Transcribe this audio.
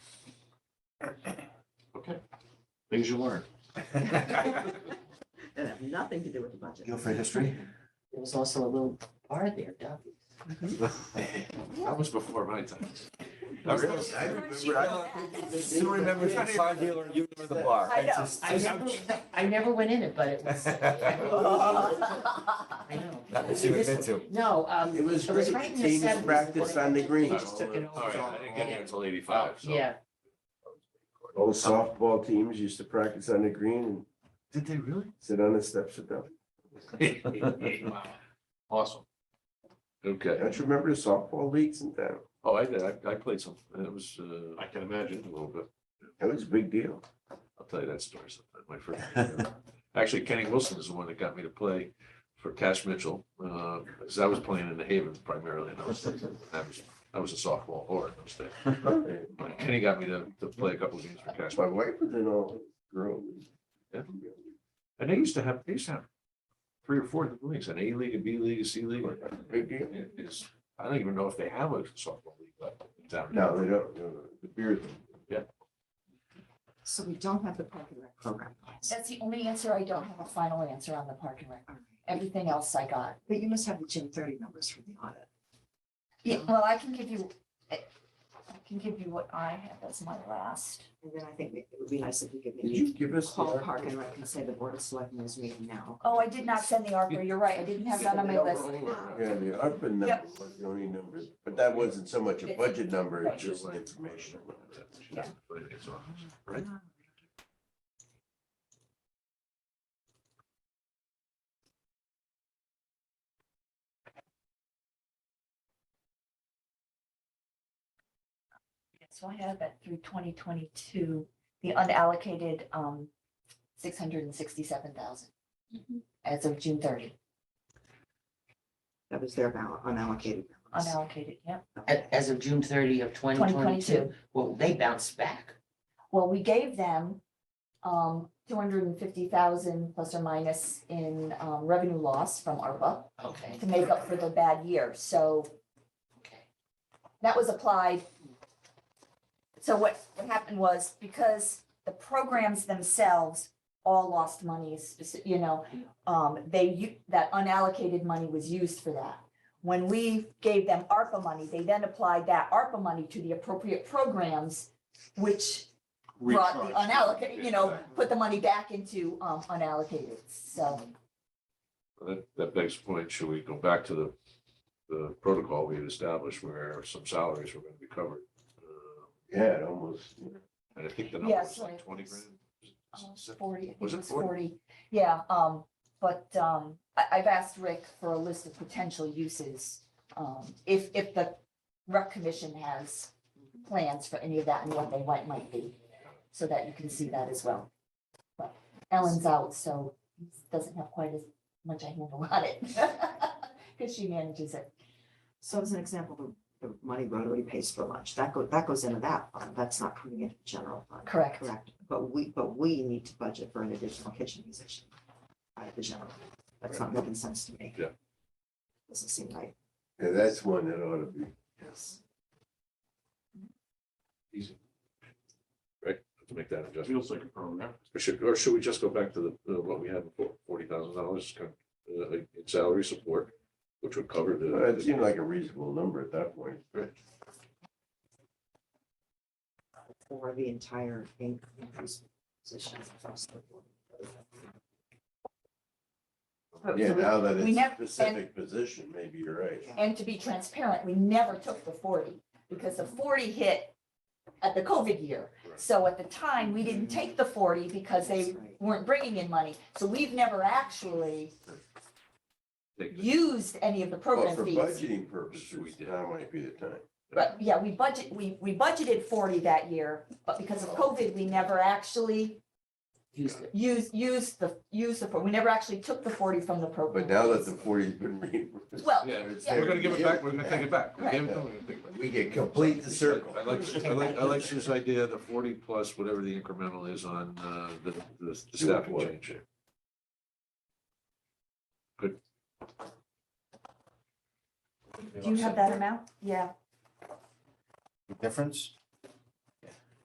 Things you learn. That It have nothing to do with the budget. Go for history. was also a little bar there, doggy. That was before my time. I remember, I remember, I still remember the car dealer, you were the bar. I know. just- I never, I never went in it, but it was. I know. Not that you admit to. No, um, it was was right great. in the Teams seventies. practice on the green. All Just took it right, Oh, I didn't get here over. Oh, until eighty-five, so. Yeah, Old softball teams used to practice on the green Did and they really? sit on the steps of the, Wow. Awesome. Okay. don't you remember the softball leagues in town? Oh, I did. I, I played some, it was, uh. I can imagine. A little bit. That was a big deal. I'll tell you that story sometime, my friend. Actually, Kenny Wilson is the one that got me to play for Cash Mitchell, uh, because I was playing in the Haven primarily, and I was, I was, I was a sophomore or in those days. But Kenny got me to, to play a couple of games for Cash. My wife was in all girls. Yeah. And they used to have, they used to have three or four different leagues, an A league, a B league, a C league. Big deal. It is, I don't even know if they have a softball league left down No, they don't, no, no, the beer. So we don't have the parking rec program. that's the only answer. I don't have a final answer on the parking rec. Everything else I got. But you must have the gym thirty numbers from the audit. Yeah, well, I can give you, I I can give you what I have as my last. And then I think it would be nice if we could Did maybe you give us? the call article? Park and Rec and say the board of selectmen is meeting now. Oh, I did not send the ARPA. You're right. I didn't have that on my list. Yeah, the ARPA number Yep. was the only number, but that wasn't so much a budget number, it's just an information. Right? So I have it through twenty twenty-two, the unallocated, um, six hundred and sixty-seven thousand Mm-hmm. as of June thirty, That was their bal- unallocated. balance. unallocated, yep. A- as of June thirty of twenty Twenty twenty-two, twenty-two. well, they bounced back. Well, we gave them, um, two hundred and fifty thousand plus or minus in, um, revenue loss from ARPA Okay. to make up for the bad year. So Okay. that was applied. So what, what happened was because the programs themselves all lost money, speci- you know, um, they, u- that unallocated money was used for that. When we gave them ARPA money, they then applied that ARPA money to the appropriate programs, which brought the unallocated, you know, put the money back into, um, unallocated, so. That, that begs the point, should we go back to the, the protocol we had established where some salaries were gonna be covered? Uh, Yeah, it almost, And I think the number Yes, was like like- twenty grand. Oh, Forty, I think Was it it was 40? forty, yeah, um, but, um, I, I've asked Rick for a list of potential uses. Um, if, if the rec commission has plans for any of that and what they might, might be, so that you can see that as well. But Ellen's out, so he doesn't have quite as much a handle on it, because she manages it. So as an example, the, the money Rotary pays for lunch, that go, that goes into that fund, that's not coming into the general fund. Correct. Correct, but we, but we need to budget for an additional kitchen musician out of the general. That's not making sense to me. Yeah. Doesn't seem right. yeah, that's one that ought to be. Yes. Easy. Right, to make that adjustment. Feels like a program. Or should, or should we just go back to the, uh, what we had before, forty thousand dollars uh, in salary support, which would cover Uh, It the. seemed like a reasonable number at that point. For the entire in- increase position across the board. But Yeah, so we- now that we it's never- a specific position, maybe you're right. And to be transparent, we never took the forty, because the forty hit at the COVID year. Right. So at the time, we Mm-hmm. didn't take the forty because they That's right. weren't bringing in money. So we've never actually used any of the Well, program for fees. budgeting purposes, that might be the time. But yeah, we budget, we, we budgeted forty that year, but because of COVID, we never actually Used it. used, used the, used the, fo- we never actually took the forty from the program. But now that the fees. forty's been reimbursed. Well, Yeah, it's yeah. we're gonna give it back, we're gonna take it back. We Right. gave it to them, we're gonna take it back. We get complete the circle. I like, I like, I like this idea, the forty plus whatever the incremental is on, uh, the, the the staffing change. Good. Do you have that amount? Yeah. Difference?